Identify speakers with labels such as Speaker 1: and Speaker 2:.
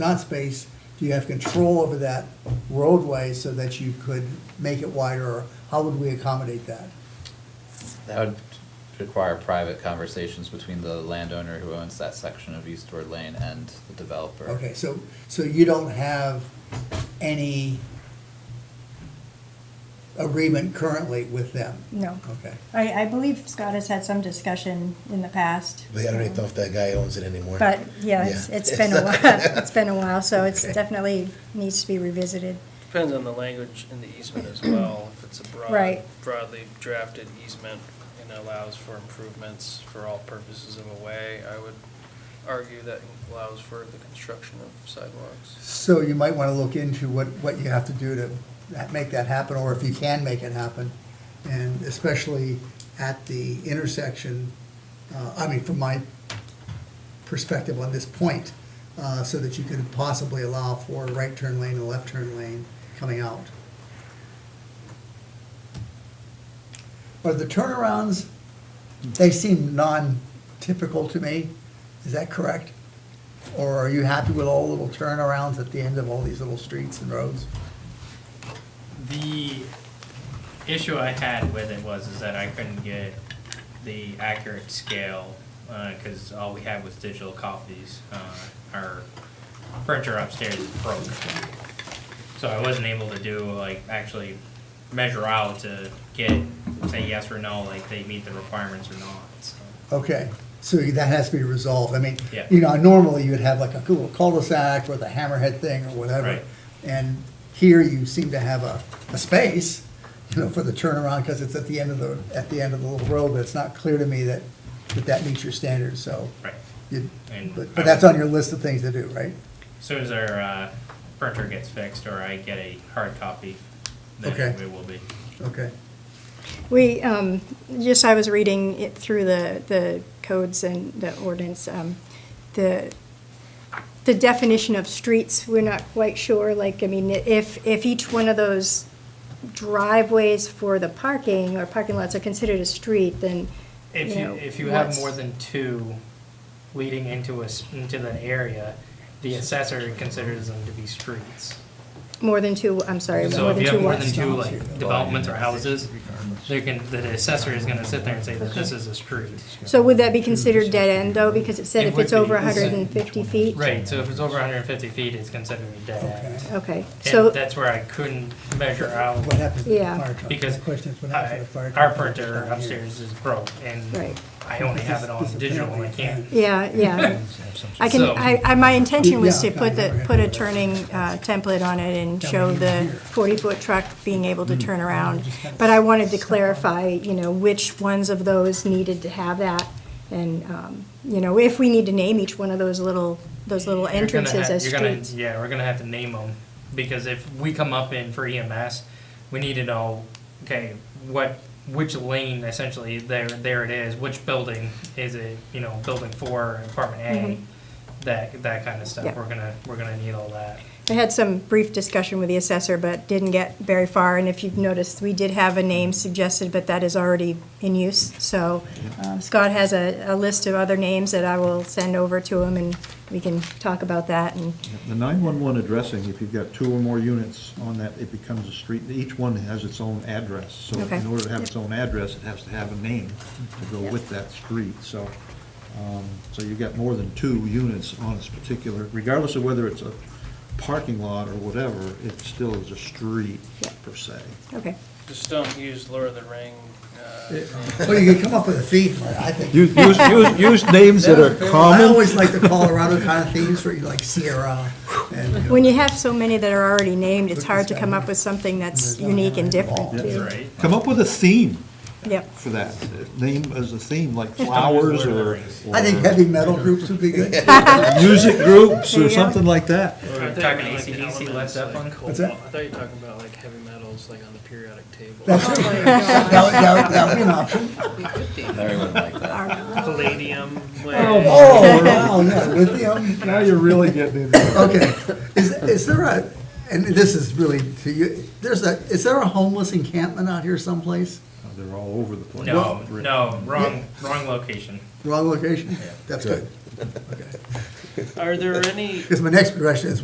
Speaker 1: not space, do you have control over that roadway so that you could make it wider? Or how would we accommodate that?
Speaker 2: That would require private conversations between the landowner who owns that section of Eastward Lane and the developer.
Speaker 1: Okay, so, so you don't have any agreement currently with them?
Speaker 3: No.
Speaker 1: Okay.
Speaker 3: I, I believe Scott has had some discussion in the past.
Speaker 4: But I don't know if that guy owns it anymore.
Speaker 3: But, yeah, it's, it's been a while, it's been a while, so it's
Speaker 4: Okay.
Speaker 3: definitely needs to be revisited.
Speaker 5: Depends on the language in the easement as well, if it's a broad,
Speaker 3: Right.
Speaker 5: broadly drafted easement and allows for improvements for all purposes of a way, I would argue that allows for the construction of sidewalks.
Speaker 1: So you might want to look into what, what you have to do to that- make that happen, or if you can make it happen. And especially at the intersection, uh, I mean, from my perspective on this point, uh, so that you could possibly allow for a right turn lane and a left turn lane coming out. Are the turnarounds, they seem non-typical to me, is that correct? Or are you happy with all the little turnarounds at the end of all these little streets and roads?
Speaker 6: The issue I had with it was is that I couldn't get the accurate scale because all we had was digital copies. Uh, our printer upstairs is broke, so I wasn't able to do like actually measure out to get say yes or no like they meet the requirements or not. So.
Speaker 1: Okay, so that has to be resolved. I mean,
Speaker 6: Yeah.
Speaker 1: you know, normally you would have like a cool cul-de-sac or the hammerhead thing or whatever.
Speaker 6: Right.
Speaker 1: And here you seem to have a, a space, you know, for the turnaround because it's at the end of the, at the end of the little road. But it's not clear to me that, that that meets your standards, so.
Speaker 6: Right.
Speaker 1: you-
Speaker 6: And
Speaker 1: But,
Speaker 6: I
Speaker 1: but that's
Speaker 6: would-
Speaker 1: on your list of things to do, right?
Speaker 6: As soon as our uh, printer gets fixed or I get a hard copy, then
Speaker 1: Okay.
Speaker 6: it will be.
Speaker 1: Okay.
Speaker 3: We, um, just, I was reading it through the, the codes and the ordinance, um, the, the definition of streets, we're not quite sure, like, I mean, if, if each one of those driveways for the parking or parking lots are considered a street, then,
Speaker 7: If
Speaker 3: you know,
Speaker 7: you, if you have
Speaker 3: what's-
Speaker 7: more than two leading into a, s- into an area, the assessor considers them to be streets.
Speaker 3: more than two, I'm sorry,
Speaker 7: So
Speaker 3: more
Speaker 7: if
Speaker 3: than
Speaker 7: you
Speaker 3: two
Speaker 7: have more
Speaker 3: what?
Speaker 7: than two like developments or houses, they can, the assessor is gonna sit there and say that this is a street.
Speaker 3: So would that be considered dead end, though, because it said
Speaker 7: It
Speaker 3: if
Speaker 7: would
Speaker 3: it's over
Speaker 7: be.
Speaker 3: hundred and fifty feet?
Speaker 7: Right, so if it's over hundred and fifty feet, it's considered a dead end.
Speaker 3: Okay, so.
Speaker 7: And that's where I couldn't measure out,
Speaker 1: What happens to the
Speaker 3: Yeah.
Speaker 1: fire truck?
Speaker 7: because
Speaker 1: The question is what happens to the fire
Speaker 7: I-
Speaker 1: truck
Speaker 7: our
Speaker 1: when it gets
Speaker 7: printer
Speaker 1: down here?
Speaker 7: upstairs is broke, and
Speaker 3: Right.
Speaker 7: I only have it on
Speaker 1: This- this
Speaker 7: digital, and I
Speaker 1: apparently
Speaker 7: can't
Speaker 3: Yeah, yeah. I can,
Speaker 7: So-
Speaker 3: I, I, my intention was to
Speaker 1: Yeah.
Speaker 3: put the, put a turning uh, template on it and show the forty-foot truck being able to turn around. But I wanted to clarify, you know, which ones of those needed to have that. And, um, you know, if we need to name each one of those little, those little
Speaker 7: You're gonna
Speaker 3: entrances
Speaker 7: have-
Speaker 3: as
Speaker 7: you're gonna-
Speaker 3: streets.
Speaker 7: Yeah, we're gonna have to name them, because if we come up in for EMS, we need to know, okay, what, which lane essentially, there, there it is, which building is it, you know, building four, apartment A, that, that kind of
Speaker 3: Mm-hmm. Yeah.
Speaker 7: stuff, we're gonna, we're gonna need all that.
Speaker 3: I had some brief discussion with the assessor, but didn't get very far, and if you've noticed, we did have a name suggested, but that is already in use, so uh, Scott has a, a list of other names that I will send over to him, and we can talk about that, and,
Speaker 8: The 911 addressing, if you've got two or more units on that, it becomes a street. Each one has its own address. So
Speaker 3: Okay.
Speaker 8: in order to have its own address, it has to have a name to go with that street. So, um, so you've got more than two units on this particular, regardless of whether it's a parking lot or whatever, it still is a street
Speaker 3: Yeah.
Speaker 8: per se.
Speaker 3: okay.
Speaker 5: Just don't use Lord of the Ring, uh,
Speaker 1: Well, you could come up with a theme, I think.
Speaker 8: Use, use, use names that are
Speaker 1: I
Speaker 8: common.
Speaker 1: always like the Colorado kind of themes where you like Sierra and. you know,
Speaker 3: When you have so many that are already named, it's hard to come up with something that's
Speaker 1: there's not
Speaker 3: unique and
Speaker 1: very involved.
Speaker 3: different, too.
Speaker 6: Right.
Speaker 8: Come up with a theme
Speaker 3: Yep,
Speaker 8: for that. Name as a theme, like flowers or
Speaker 1: I think heavy metal groups would be good.
Speaker 8: music groups
Speaker 3: There you
Speaker 8: or
Speaker 3: go.
Speaker 8: something like that.
Speaker 5: or
Speaker 7: I'm
Speaker 5: talking
Speaker 7: talking
Speaker 5: like the E
Speaker 7: AC/DC, Led
Speaker 5: elements, like
Speaker 7: Zeppelin.
Speaker 5: cobalt.
Speaker 1: that?
Speaker 5: I thought you were talking about like heavy metals, like on the periodic table.
Speaker 1: That's it. That would, that would- that would be an option.
Speaker 2: Larry wouldn't like that.
Speaker 5: Palladium, like.
Speaker 1: Oh, wow, yeah, lithium,
Speaker 8: Now you're really getting into it.
Speaker 1: okay. Is, is there a, and this is really to you, there's a, is there a homeless encampment out here someplace?
Speaker 8: They're all over the place.
Speaker 6: No, no, wrong, wrong location.
Speaker 1: Wrong location? That's good. Okay.
Speaker 5: Are there any?
Speaker 1: Because my next question is,